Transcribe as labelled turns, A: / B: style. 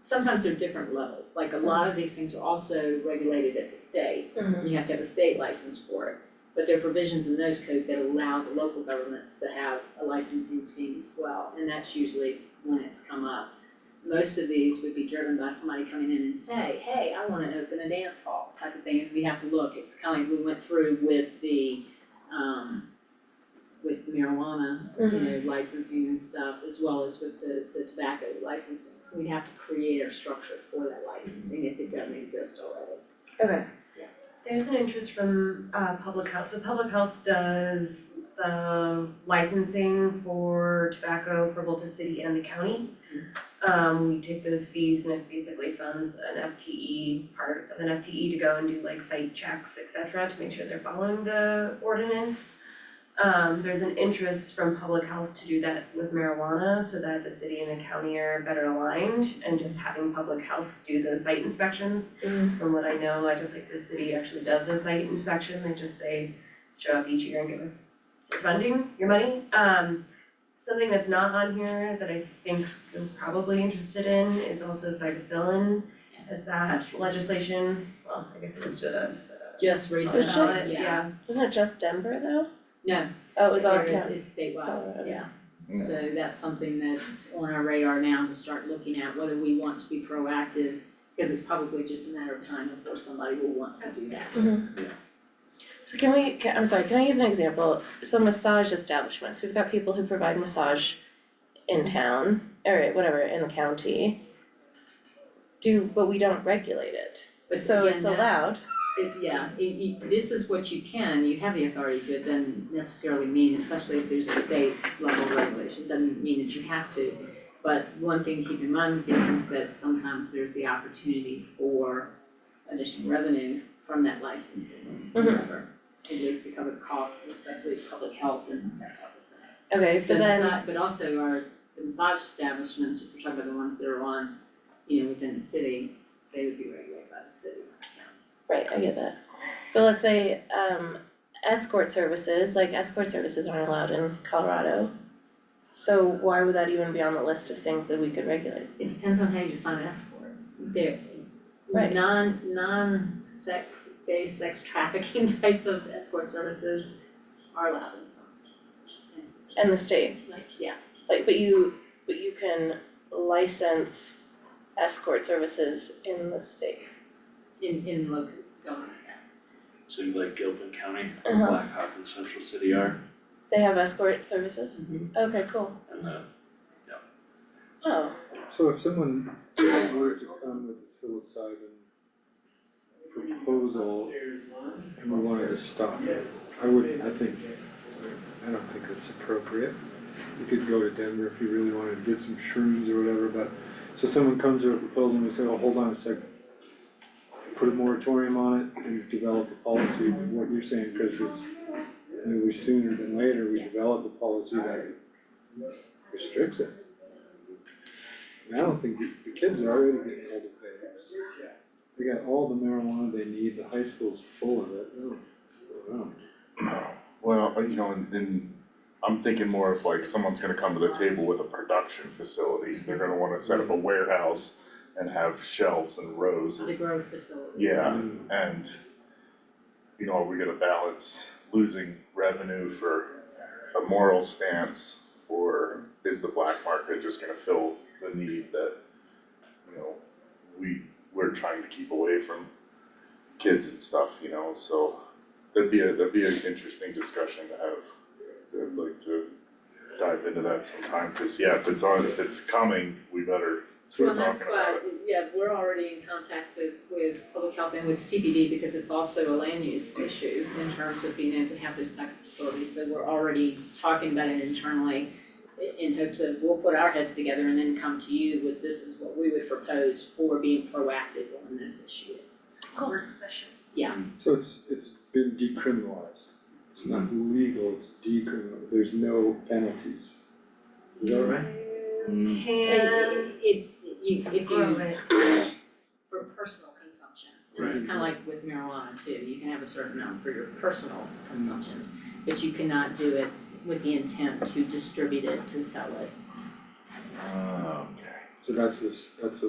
A: sometimes there are different levels, like a lot of these things are also regulated at the state,
B: Hmm.
A: and you have to have a state license for it. But there are provisions in those code that allow the local governments to have a licensing scheme as well, and that's usually when it's come up. Most of these would be driven by somebody coming in and say, hey, I wanna open a dance hall type of thing, and we have to look, it's kind of, we went through with the, um, with marijuana you know, licensing and stuff, as well as with the, the tobacco licensing. We'd have to create our structure for that licensing if it doesn't exist already.
B: Okay.
C: There's an interest from uh public health, so public health does the licensing for tobacco for both the city and the county. Um we take those fees and it basically funds an FTE, part of an FTE to go and do like site checks, et cetera, to make sure they're following the ordinance. Um there's an interest from public health to do that with marijuana so that the city and the county are better aligned and just having public health do those site inspections from what I know, I don't think the city actually does a site inspection, they just say, show up each year and give us your funding, your money. Um, something that's not on here that I think you're probably interested in is also cytosilin. Is that legislation, well, I guess it was just, uh,
A: Just
C: on the
B: It's just-
A: recently,
C: ballot,
A: yeah.
C: yeah,
B: Wasn't it just Denver though?
A: No.
B: Oh, it was all
A: There is-
B: county.
A: It's statewide,
B: Oh,
A: yeah.
D: Yeah.
A: So that's something that's on our radar now to start looking at, whether we want to be proactive, because it's probably just a matter of time before somebody will want to do that.
B: So can we, can, I'm sorry, can I use an example? So massage establishments, we've got people who provide massage in town, or whatever, in the county. Do, but we don't regulate it,
A: But
B: so
A: again,
B: it's
A: that-
B: allowed.
A: It, yeah, it, you, this is what you can, you have the authority to, do it doesn't necessarily mean, especially if there's a state level regulation, it doesn't mean that you have to. But one thing to keep in mind with these is that sometimes there's the opportunity for additional revenue from that licensing,
B: Mhm.
A: whatever. At least to cover the costs, especially public health and that type of thing.
B: Okay, but
A: But
B: then,
A: massa- but also our, the massage establishments, if we're talking about the ones that are on, you know, within the city, they would be regulated by the city, not the county.
B: right, I get that. But let's say, um, escort services, like escort services aren't allowed in Colorado. So why would that even be on the list of things that we could regulate?
A: It depends on how you define escort. They're
B: Right.
A: non, non-sex based sex trafficking type of escort services are allowed in some instances.
B: And the state,
A: Like, yeah,
B: Like, but you, but you can license escort services in the state.
A: in, in local government, yeah.
E: So you like Gilpin County,
B: Uh-huh.
E: Blackhawk and Central City are,
B: They have escort services? Okay, cool.
E: and the
B: Oh,
F: So if someone were to come with a psilocybin proposal and we wanted to stop it, I would, I think, I don't think that's appropriate. You could go to Denver if you really wanted to get some shrooms or whatever, but, so someone comes with a proposal and we say, oh, hold on a second. Put a moratorium on it and develop a policy, what you're saying, Chris, is maybe sooner than later, we develop a policy that restricts it. And I don't think, the the kids are already getting hold of vapes. They got all the marijuana they need, the high school's full of it, I don't, I don't know.
D: Well, uh, you know, and and I'm thinking more of like someone's gonna come to the table with a production facility, they're gonna wanna set up a warehouse and have shelves and rows
A: The
D: of,
A: grove facility.
D: yeah, and you know, are we gonna balance losing revenue for a moral stance? Or is the black market just gonna fill the need that, you know, we we're trying to keep away from kids and stuff, you know, so that'd be a, that'd be an interesting discussion to have. I'd like to dive into that sometime, cause yeah, if it's on, if it's coming, we better
A: Well,
D: start
A: that's
D: talking about
A: why,
D: it.
A: yeah, we're already in contact with, with public health and with CBD because it's also a land use issue in terms of being able to have those type of facilities, so we're already talking about it internally i- in hopes of, we'll put our heads together and then come to you with this is what we would propose for being proactive on this issue.
C: work session.
F: So it's, it's been decriminalized, it's not legal, it's decriminal, there's no penalties. Is that right?
C: You can
A: It- It, you, if
C: grow
A: you,
C: it.
A: for personal consumption, and it's
F: Right.
A: kinda like with marijuana too, you can have a certain amount for your personal consumption, but you cannot do it with the intent to distribute it, to sell it,
D: Ah, okay.
F: So that's this, that's a